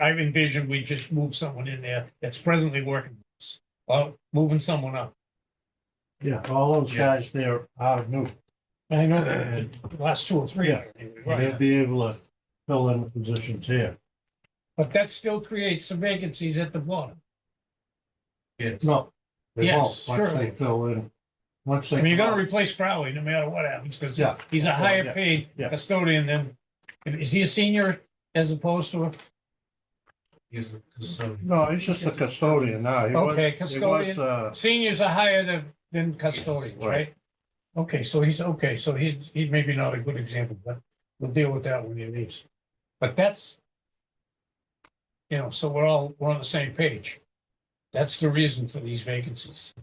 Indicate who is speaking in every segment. Speaker 1: I envision we just move someone in there that's presently working, with us, or moving someone up.
Speaker 2: Yeah, all those
Speaker 3: Yeah.
Speaker 2: guys there are new,
Speaker 1: I know that, the last two or three.
Speaker 2: Yeah.
Speaker 1: anyway,
Speaker 2: and they'll
Speaker 1: right.
Speaker 2: be able to fill in the positions here.
Speaker 1: But that still creates some vacancies at the bottom.
Speaker 3: Yes.
Speaker 2: No, they won't,
Speaker 1: Yes,
Speaker 2: once they
Speaker 1: sure.
Speaker 2: fill in, once they.
Speaker 1: I mean, you're gonna replace Crowley no matter what happens, because
Speaker 2: Yeah.
Speaker 1: he's a
Speaker 2: Well,
Speaker 1: higher
Speaker 2: yeah,
Speaker 1: paid
Speaker 2: yeah.
Speaker 1: custodian than, is he a senior as opposed to, a
Speaker 3: Yes, so,
Speaker 2: No, he's just a custodian now. He was-
Speaker 1: Okay,
Speaker 2: he was,
Speaker 1: custodian.
Speaker 2: uh,
Speaker 1: seniors are higher than, than custodians,
Speaker 2: Right.
Speaker 1: right? Okay, so he's, okay, so he, he may be not a good example, but we'll deal with that when he leaves. But that's, you know, so we're all, we're on the same page. That's the reason for these vacancies.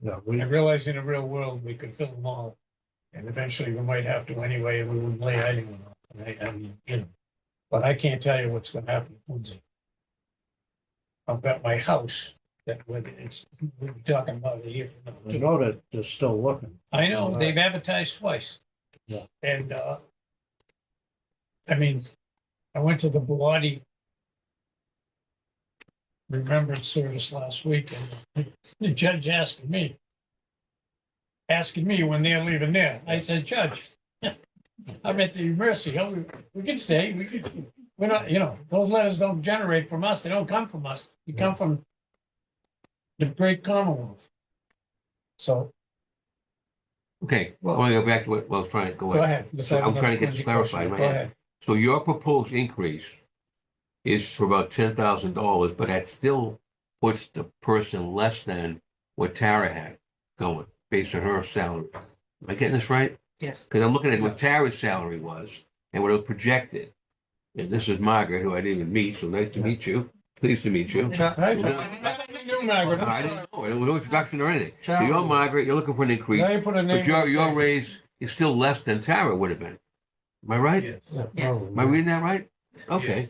Speaker 2: Yeah,
Speaker 1: I
Speaker 2: we,
Speaker 1: realize in the real world, we could fill them all, and eventually we might have to anyway, and we wouldn't lay anyone off. And I, I mean, you know, but I can't tell you what's gonna happen in Quincy. I've got my house that when it's, we'll be talking about it here. from now
Speaker 2: we
Speaker 1: too.
Speaker 2: know that they're still looking. Uh,
Speaker 1: I know, they've advertised twice.
Speaker 2: Yeah.
Speaker 1: And, uh, I mean, I went to the Bloody Remembrance Service last week and the judge asked me, asking me when they're leaving there. I said, Judge, I'm at the mercy. Oh, We we can stay. We can, we're not, you know, those letters don't generate from us. They don't come from us. They come from the great Commonwealth. So
Speaker 4: Okay, I want to go back to what, well, trying, go
Speaker 1: Go
Speaker 4: ahead.
Speaker 1: ahead. Let's
Speaker 4: So
Speaker 1: have
Speaker 4: I'm trying to
Speaker 1: another
Speaker 4: get this
Speaker 1: question.
Speaker 4: clarified,
Speaker 1: Go
Speaker 4: right?
Speaker 1: ahead.
Speaker 4: So your proposed increase is for about ten thousand dollars, but that still puts the person less than what Tara had going, based on her salary. Am I getting this right?
Speaker 5: Yes.
Speaker 4: Because I'm looking at what Tara's salary was and what it was projected. And this is Margaret, who I didn't even meet, so nice to meet you. Pleased to meet you.
Speaker 2: Cha-
Speaker 1: Right?
Speaker 4: No.
Speaker 1: Nothing new, Margaret.
Speaker 4: I
Speaker 1: I'm
Speaker 4: didn't
Speaker 1: sorry.
Speaker 4: know, there was no introduction or anything. So you're
Speaker 2: Tara-
Speaker 4: Margaret, you're looking for an
Speaker 1: Now
Speaker 4: increase,
Speaker 1: you put a name.
Speaker 4: but your, your
Speaker 1: on it.
Speaker 4: raise is still less than Tara would have been. Am I right?
Speaker 3: yes.
Speaker 2: Oh, yeah,
Speaker 5: Yes.
Speaker 2: probably.
Speaker 4: Am I reading that right? Okay,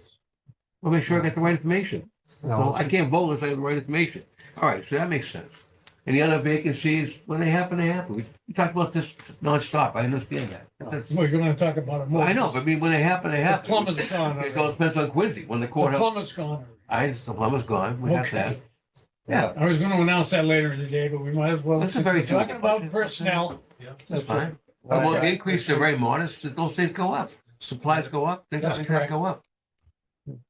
Speaker 4: I'll make sure I get the right information.
Speaker 2: No,
Speaker 4: So I can't vote unless I have the right information. All right, so that makes sense. Any other vacancies, when they happen, they happen. We- We talked about this nonstop, I understand that. That's-
Speaker 1: We're gonna talk about it more.
Speaker 4: I know, but I mean, when they happen, they
Speaker 1: The
Speaker 4: happen.
Speaker 1: plumber's gone
Speaker 4: It all
Speaker 1: already.
Speaker 4: depends on Quincy, when the
Speaker 1: The
Speaker 4: courthouse,
Speaker 1: plumber's gone.
Speaker 4: I, the plumber's gone, we have that.
Speaker 1: Okay.
Speaker 4: Yeah,
Speaker 1: I was gonna announce that later in the day, but we might as well.
Speaker 4: That's a
Speaker 1: since
Speaker 4: very
Speaker 1: we're Talking
Speaker 4: doable
Speaker 1: about
Speaker 4: budget.
Speaker 1: personnel.
Speaker 4: that's
Speaker 2: it.
Speaker 4: fine.
Speaker 2: I-
Speaker 4: Well, the increases are very modest, those things go up. Supplies go up, things
Speaker 1: That's
Speaker 4: like that
Speaker 1: correct.
Speaker 4: go up.
Speaker 1: John,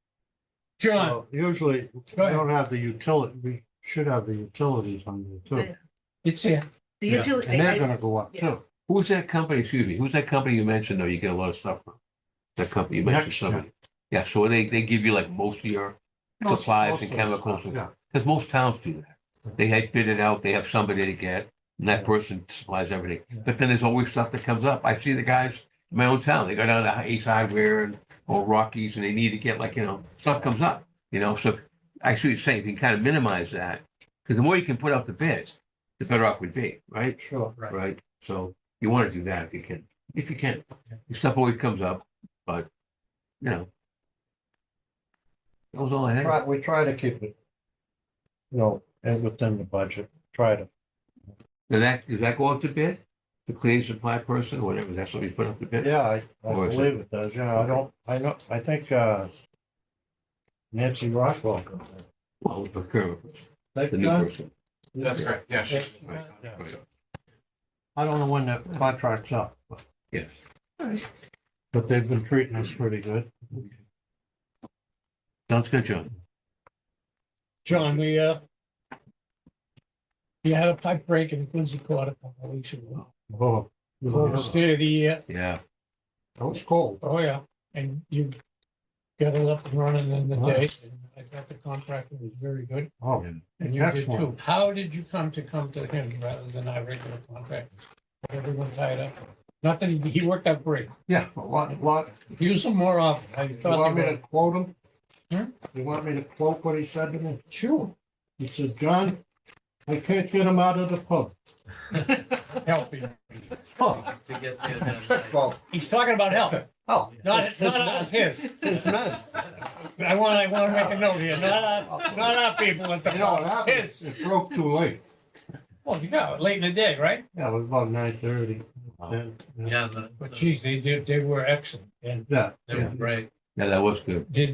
Speaker 2: Well, Usually, we
Speaker 1: Go ahead.
Speaker 2: don't have the utility, we should have the utilities on there too,
Speaker 1: it's here.
Speaker 5: The
Speaker 3: Yeah.
Speaker 5: utility.
Speaker 2: and they're gonna go up
Speaker 5: Yeah.
Speaker 2: too.
Speaker 4: Who's that company, excuse me, who's that company you mentioned, though, you get a lot of stuff from? That company, you mentioned
Speaker 2: NextGen.
Speaker 4: somebody. Yeah, so they, they give you like most of your
Speaker 2: Most-
Speaker 4: supplies
Speaker 2: most
Speaker 4: and
Speaker 2: of the stuff,
Speaker 4: chemicals and
Speaker 2: yeah.
Speaker 4: Because most towns do that. They had bid it out, they have somebody to get, and that person supplies everything.
Speaker 2: Yeah.
Speaker 4: But then there's always stuff that comes up. I see the guys in my own town, they go down to Ace Hardware and, or Rockies, and they need to get like, you know, stuff comes up, you know, so I see what you're saying, if you can kind of minimize that, because the more you can put out the bids, the better off we'd be, right?
Speaker 2: Sure.
Speaker 3: Right.
Speaker 4: Right? So you want to do that if you can, if you can. Your Stuff always comes up, but, you know. That was all I had.
Speaker 2: Try, we try to keep it, you know, and within the budget, try to,
Speaker 4: Does that, does that go up to bid? The cleaning supply person, or whatever, that's what we put up to bid?
Speaker 2: yeah, I, I
Speaker 4: Or is it-
Speaker 2: believe it does, yeah, I don't, I know, I think, uh, Nancy Rockwell. goes in.
Speaker 4: Well, the procurement, person,
Speaker 2: Thank
Speaker 4: the new
Speaker 2: God.
Speaker 4: person.
Speaker 3: That's correct, yeah. she-
Speaker 4: Right,
Speaker 2: Yeah.
Speaker 4: right,
Speaker 2: I don't know when that contract's up, but-
Speaker 4: Yes.
Speaker 2: but they've been treating us pretty good.
Speaker 4: Sounds good, John.
Speaker 1: John, we, uh, we had a pipe break in Quincy Court a couple of weeks ago.
Speaker 2: Oh, oh,
Speaker 1: State of the year.
Speaker 4: Yeah.
Speaker 2: That was cold.
Speaker 1: Oh, yeah, and you got it up and running in the day. and I thought the contractor was very good.
Speaker 2: Oh,
Speaker 1: And you did
Speaker 2: Excellent.
Speaker 1: too. How did you come to come to him rather than our regular contractor? Everyone tied up. Nothing, he worked out great.
Speaker 2: yeah, a lot, lot.
Speaker 1: Use him more often. I
Speaker 2: You
Speaker 1: thought
Speaker 2: want
Speaker 1: they
Speaker 2: me
Speaker 1: were-
Speaker 2: to quote him?
Speaker 1: Hmm?
Speaker 2: You want me to quote what he said to me?
Speaker 1: Sure,
Speaker 2: He said, John, I can't get him out of the pub.
Speaker 1: help him.
Speaker 2: Oh,
Speaker 3: To get
Speaker 2: I
Speaker 3: the-
Speaker 2: said, well,
Speaker 1: He's talking about help,
Speaker 2: oh.
Speaker 1: not,
Speaker 2: it's- it's
Speaker 1: not us, his.
Speaker 2: It's men.
Speaker 1: I want, I want to make a note here, not our, not our people at the,
Speaker 2: You know what
Speaker 1: pub.
Speaker 2: happened?
Speaker 1: his.
Speaker 2: It broke too late.
Speaker 1: Well, you know, late in the day, right?
Speaker 2: Yeah, it was about nine thirty.
Speaker 3: Yeah, the-
Speaker 1: But geez, they did, they were excellent and
Speaker 2: Yeah.
Speaker 3: they were great.
Speaker 4: Yeah, that was good.
Speaker 1: did